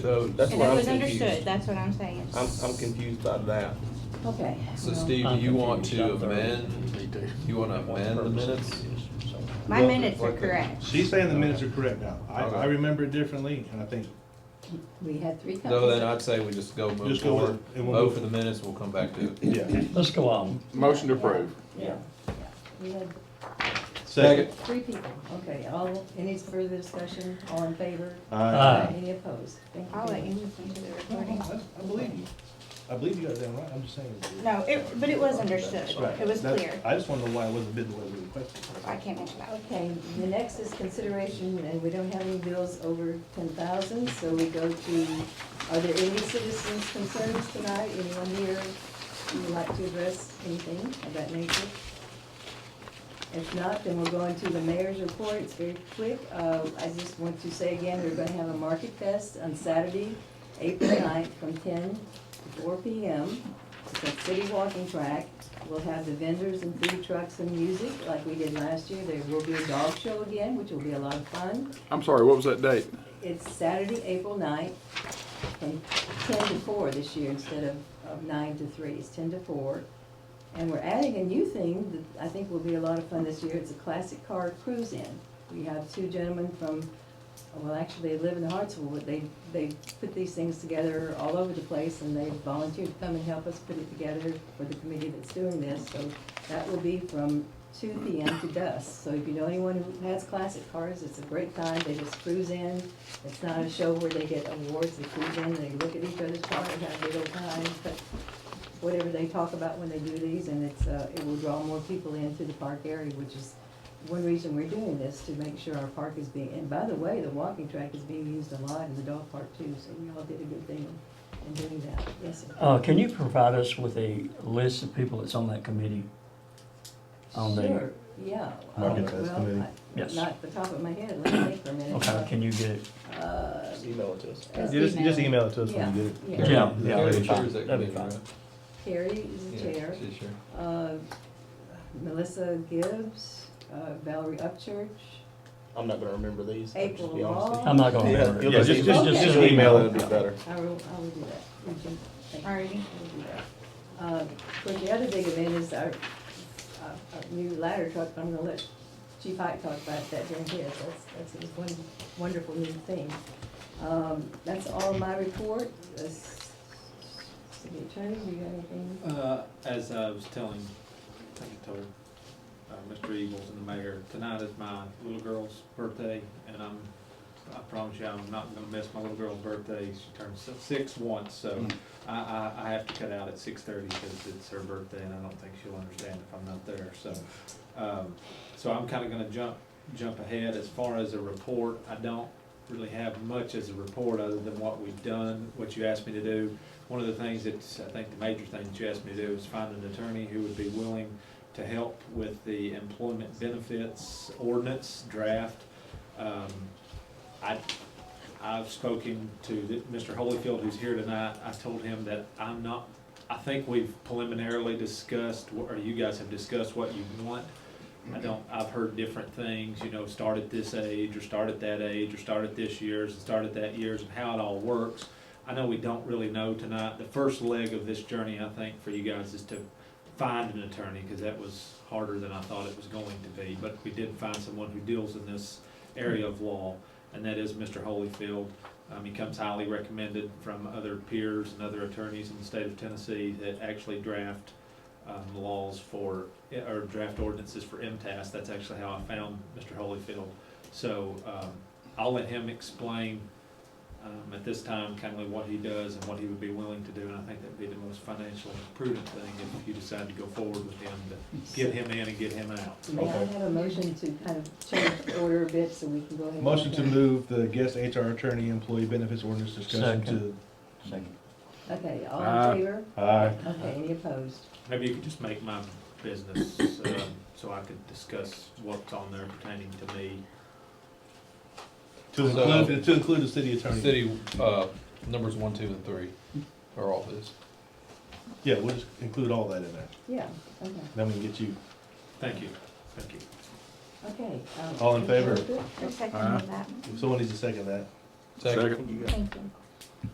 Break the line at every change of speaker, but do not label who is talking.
So that's
And
what
it
I'm
was understood,
confused.
that's what I'm saying.
I'm, I'm confused by that.
Okay.
So
well,
Steve, do you want to amend,
Me too.
you want to amend the minutes?
My
Well,
minutes are
like uh, the-
correct.
She's saying the minutes are correct now. I, I
Okay.
remember it differently, and I think,
We had three copies.
No, then I'd say we just go move
Just go with-
forward,
and we'll
vote
move-
for the minutes, we'll come back to it.
yeah.
Let's go on.
Motion
to approve.
Yeah, yeah. We had
Second.
three people. Okay, all, any further discussion? All in favor?
I
Aye.
Any opposed? Thank you.
I'll let you listen to the recording.
I believe you. I believe you got that right. I'm just saying.
No, it, but it was understood,
Right.
it was
That-
clear.
I just wanted to know why it wasn't bid the way we requested.
I can't mention that.
Okay, the next is consideration, and we don't have any bills over ten thousand, so we go to, are there any citizens concerns tonight? Anyone here who would like to address anything of that nature? If not, then we'll go into the mayor's report, it's very quick. Uh, I just want to say again, we're gonna have a market fest on Saturday, April 9th, from ten to four P M. It's a city walking track. We'll have the vendors and food trucks and music like we did last year. There will be a dog show again, which will be a lot of fun.
I'm sorry, what was that date?
It's Saturday, April 9th, from ten to four this year instead of, of nine to three. It's ten to four. And we're adding a new thing that I think will be a lot of fun this year. It's a classic car cruise-in. We have two gentlemen from, well, actually, they live in Hartsville, but they, they put these things together all over the place, and they volunteered to come and help us put it together for the committee that's doing this. So that will be from two P M to dusk. So if you know anyone who has classic cars, it's a great time. They just cruise in. It's not a show where they get awards. They cruise in, they look at each other's car and have a good old time. But whatever they talk about when they do these, and it's, uh, it will draw more people into the park area, which is one reason we're doing this, to make sure our park is being, and by the way, the walking track is being used a lot in the dog park too, so we all did a good thing in doing that, yes, sir.
Uh, can you provide us with a list of people that's on that committee? On the-
Sure, yeah. uh,
Market test
well,
committee.
I-
Yes.
Not the top of my head, let me think for a minute.
Okay, can you get it?
Uh,
Just email it to us.
Just
Just,
email.
just email it to us when you get it.
Yeah, yeah.
Yeah, yeah, that'd
Carrie
be fine.
chairs that
That'd be
committee, right?
fine.
Terry is the
Yeah,
chair.
she's chair.
Uh, Melissa Gibbs, uh, Valerie Upchurch,
I'm not gonna remember these.
April
be honest with
Law.
I'm not gonna
Yeah,
remember.
Yeah,
it.
just, just, just
Okay.
just email
That'd be
it.
better.
I will, I will do that. Would you- thank you.
Alrighty.
We'll do that. Uh, Of course, the other big event is our, our our new ladder truck, I'm gonna let Chief Hike talk about that during his, that's, that's his one wonderful new thing. Um, that's all my report, Uh, City Attorney, do you have anything?
Uh, as I was telling, I think I told, uh, Mr. Eagles and the mayor, tonight is my little girl's birthday, and I'm, I promise you, I'm not gonna miss my little girl's birthday. She turned si- six once, so I, I, I have to cut out at six thirty because it's her birthday, and I don't think she'll understand if I'm not there, so. Um, so I'm kinda gonna jump, jump ahead. As far as a report, I don't really have much as a report other than what we've done, what you asked me to do. One of the things that's, I think the major thing that you asked me to do is find an attorney who would be willing to help with the employment benefits ordinance draft. Um, I, I've spoken to the- Mr. Holyfield, who's here tonight, I told him that I'm not, I think we've preliminarily discussed, or you guys have discussed what you want. I don't, I've heard different things, you know, start at this age, or start at that age, or start at this year's, and start at that year's, and how it all works. I know we don't really know tonight. The first leg of this journey, I think, for you guys is to find an attorney, because that was harder than I thought it was going to be. But we did find someone who deals in this area of law, and that is Mr. Holyfield. Um, he comes highly recommended from other peers and other attorneys in the state of Tennessee that actually draft, um, laws for, or draft ordinances for MTS. That's actually how I found Mr. Holyfield. So, um, I'll let him explain um, at this time, kind of what he does and what he would be willing to do, and I think that'd be the most financially prudent thing if you decide to go forward with him, to get him in and get him out.
May I
Okay.
have a motion to kind of change the order a bit so we can go ahead? and-
Motion to move the guest HR attorney employee benefits ordinance discussion
Second.
to.
Okay, all
Aye.
in favor?
Aye.
Okay, any opposed?
Maybe you could just make my business, um, so I could discuss what's on there pertaining to me.
To include, to include the city attorney.
City, uh, numbers one, two, and three are all this.
Yeah, we'll just include all that in there.
Yeah, okay,
Then we can get you.
Thank you, thank you.
okay. um,
All in favor?
I second that.
If someone needs to second that.
Second.
Thank you.